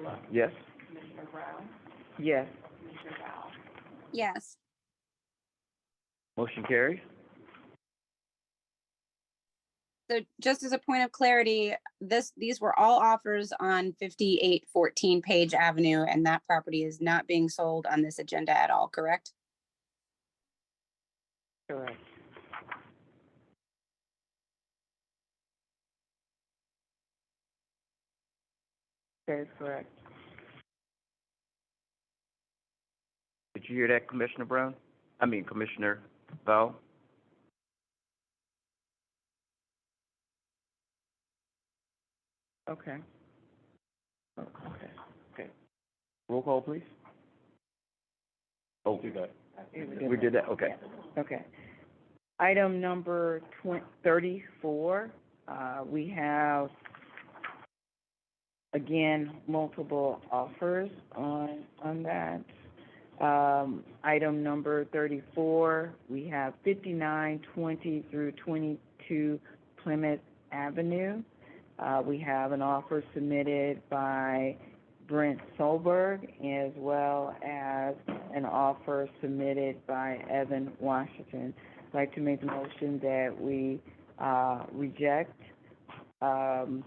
Clark? Yes. Yes. Yes. Motion carries. So just as a point of clarity, this, these were all offers on fifty-eight fourteen Page Avenue, and that property is not being sold on this agenda at all, correct? Correct. That is correct. Did you hear that, Commissioner Brown? I mean, Commissioner Val? Okay. Okay, okay. Roll call, please. Oh, we got, we did that, okay. Okay. Item number twen- thirty-four, uh, we have, again, multiple offers on, on that. Um, item number thirty-four, we have fifty-nine twenty through twenty-two Plymouth Avenue. Uh, we have an offer submitted by Brent Solberg as well as an offer submitted by Evan Washington. I'd like to make the motion that we, uh, reject, um,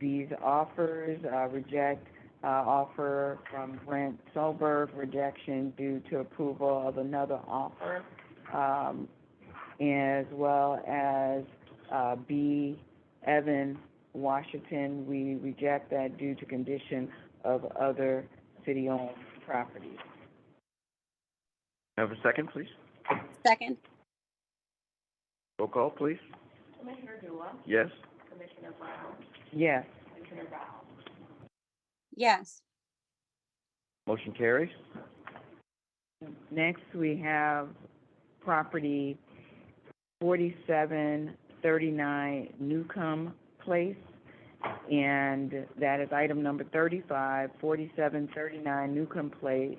these offers, uh, reject, uh, offer from Brent Solberg, rejection due to approval of another offer, um, as well as, uh, B, Evan Washington, we reject that due to condition of other city-owned properties. Have a second, please. Second? Roll call, please. Commissioner Dula? Yes. Yes. Yes. Motion carries. Next, we have property forty-seven thirty-nine Newcomb Place, and that is item number 35, 4739 Newcomb Place.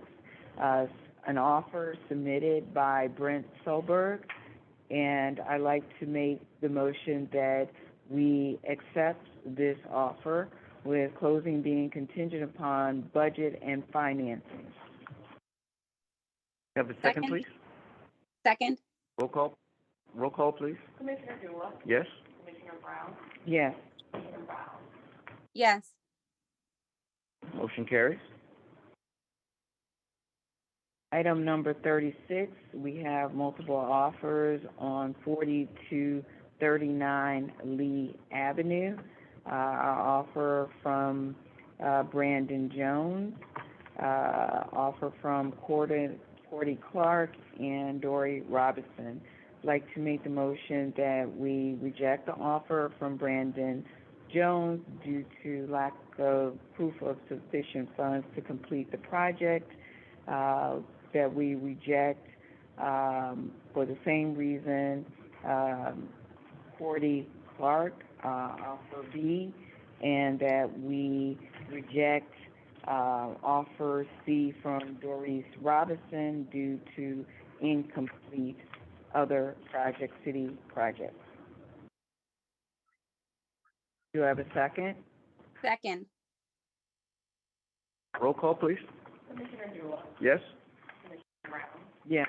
Uh, an offer submitted by Brent Solberg, and I'd like to make the motion that we accept this offer with closing being contingent upon budget and financing. Have a second, Second. please. Second? Roll call, roll call, please. Commissioner Dula? Yes. Yes. Yes. Motion carries. Item number thirty-six, we have multiple offers on forty-two thirty-nine Lee Avenue. Uh, our offer from, uh, Brandon Jones, uh, offer from Cordy, Cordy Clark and Dory Robinson. I'd Like to make the motion that we reject the offer from Brandon Jones due to lack of proof of sufficient funds to complete the project uh, that we reject, um, for the same reason, um, Cordy Clark, uh, offer B, and that we reject, uh, offer C from Doris Robinson due to incomplete other project, city projects. Do I have a second? Second? Roll call, please. Commissioner Dula? Yes. Yes.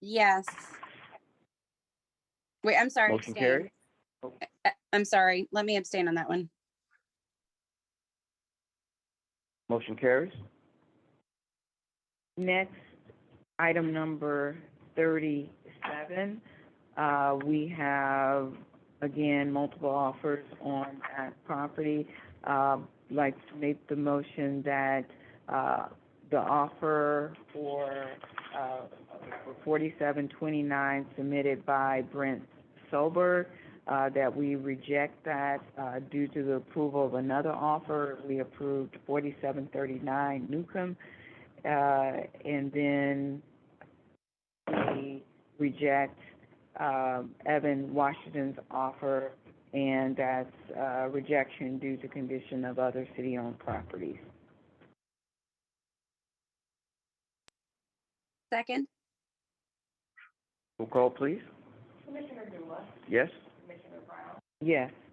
Yes. Wait, I'm sorry. Motion abstain. carries. I- I'm sorry. Let me abstain on that one. Motion carries. Next, item number thirty-seven, uh, we have, again, multiple offers on that property. Uh, like to make the motion that, uh, the offer for, uh, for forty-seven twenty-nine submitted by Brent Sober, uh, that we reject that, uh, due to the approval of another offer. We approved forty-seven thirty-nine Newcomb, uh, and then we reject, um, Evan Washington's offer, and that's, uh, rejection due to condition of other city-owned properties. Second? Roll call, please. Commissioner Dula? Yes. Yes.